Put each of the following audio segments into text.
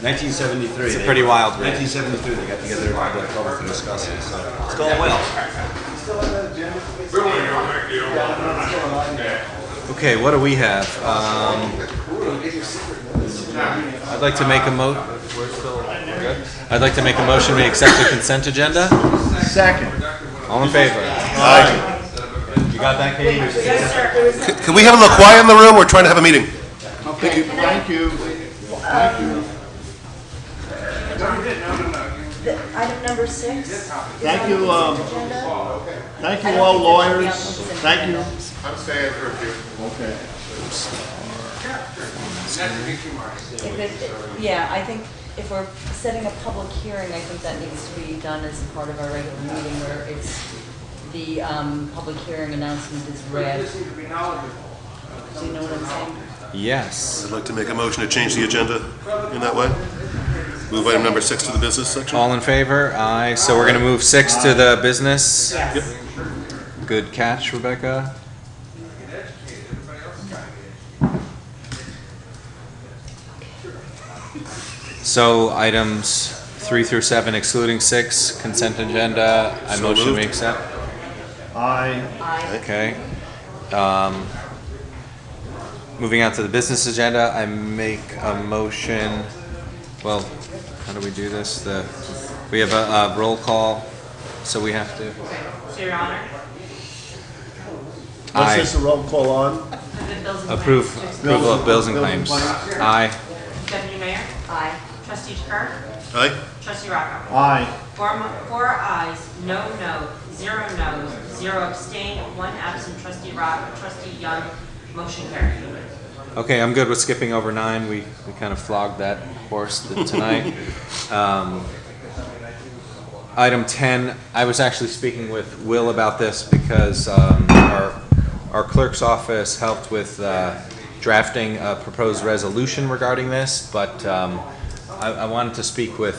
1973. It's a they- pretty wild ride. 1973, they got together in Black Hole to discuss it. So It's going well. Okay, what do we have? Um, I'd like to make a mo. We're still we're good. I'd like to make a motion. We accept the consent agenda. Second. All in favor? You got that, Katie? Can we have a little quiet in the room? We're trying to have a meeting. Okay, thank you. The Item number six. is Thank on you, the um, consent agenda. Thank you all lawyers. Thank you. I'm staying for a few. Okay. If it- Yeah, I think if we're setting a public hearing, I think that needs to be done as part of our regular meeting where it's, the um, public hearing announcement is read. Do you know what I'm saying? Yes. I'd like to make a motion to change the agenda in that way. Move item number six to the business section. All in favor? Aye. So we're gonna move six to the business. Yes. Good catch, Rebecca. So items three through seven excluding six, consent agenda, I So motion we moved. accept. I, Aye. Okay. Um, Moving on to the business agenda, I make a motion, well, how do we do this? The, we have a a roll call, so we have to. So your honor, what's Aye. this, a roll call on? the bills and Approve, claims. approval of bills and Bills and claims. claims. Aye. Deputy Mayor, Aye. trustee Kerr, Aye? trustee Rocco. Aye. Four, mo- four ayes, no no, zero no's, zero abstain, one absent, trustee Rocco, trustee Young, motion carried. Okay, I'm good with skipping over nine. We, we kind of flogged that horse th- tonight. Um, Item 10, I was actually speaking with Will about this because um, our our clerk's office helped with uh, drafting a proposed resolution regarding this, but um, I I wanted to speak with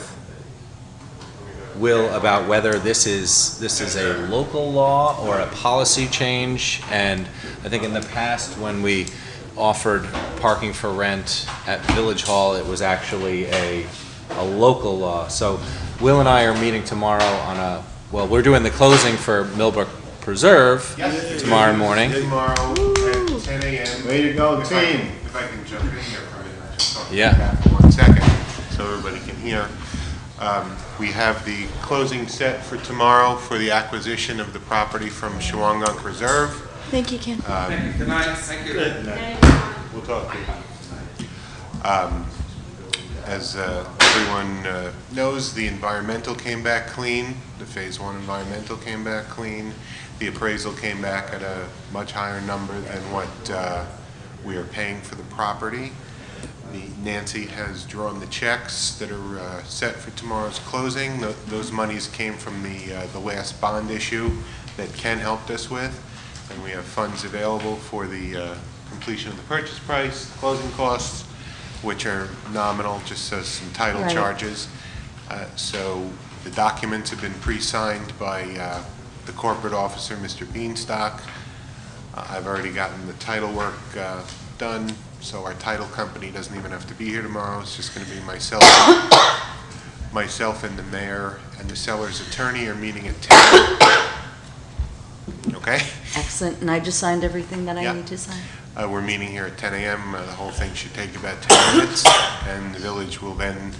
Will about whether this is, this is a local law or a policy change. And I think in the past, when we offered parking for rent at Village Hall, it was actually a, a local law. So Will and I are meeting tomorrow on a, well, we're doing the closing for Millbrook Preserve tomorrow morning. Tomorrow at 10 a.m. Way to go, If I can- team. If I can jump in here for a minute, just talk Yeah. about that for one second, so everybody can hear. Um, We have the closing set for tomorrow for the acquisition of the property from Shawangunk Reserve. Thank you, Ken. We'll talk. Um, As uh, everyone uh, knows, the environmental came back clean, the Phase One environmental came back clean. The appraisal came back at a much higher number than what uh, we are paying for the property. The- Nancy has drawn the checks that are uh, set for tomorrow's closing. Tho- Those monies came from the, uh, the last bond issue that Ken helped us with, and we have funds available for the uh, completion of the purchase price, closing costs, which are nominal, just says some title Right. charges. Uh, So the documents have been pre-signed by uh, the corporate officer, Mr. Beanstock. Uh, I've already gotten the title work uh, done, so our title company doesn't even have to be here tomorrow. It's just going to be myself, myself and the mayor and the seller's attorney are meeting at 10. Okay? Excellent, and I just signed everything that Yeah. I need to sign? Uh, We're meeting here at 10 a.m. Uh, The whole thing should take about 10 minutes, and the village will then,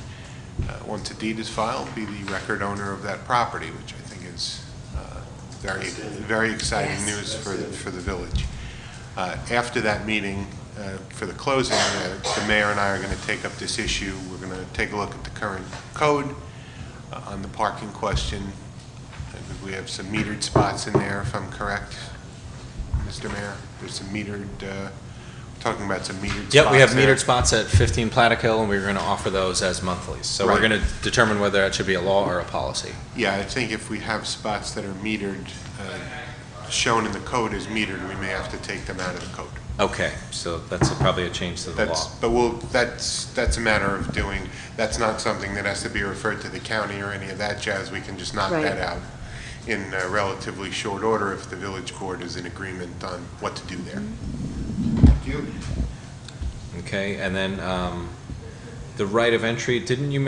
uh, once a deed is filed, be the record owner of that property, which I think is uh, very, very exciting news for, the- for the village. Uh, After that meeting, uh, for the closing, uh, the mayor and I are going to take up this issue. We're going to take a look at the current code uh, on the parking question. I think We have some metered spots in there, if I'm correct, Mr. Mayor. There's some metered, uh, we're talking about some metered spots. Yep, we have there. metered spots at 15 Platic Hill, and we're going to offer those as monthlies. So we're Right. going to determine whether that should be a law or a policy. Yeah, I think if we have spots that are metered, uh, shown in the code as metered, we may have to take them out of the code. Okay, so that's probably a change to the law. That's, but we'll, that's, that's a matter of doing, that's not something that has to be referred to the county or any of that jazz. We can just knock Right. that out in uh, relatively short order if the village board is in agreement on what to do there. You. Okay, and then um, the right of entry, didn't you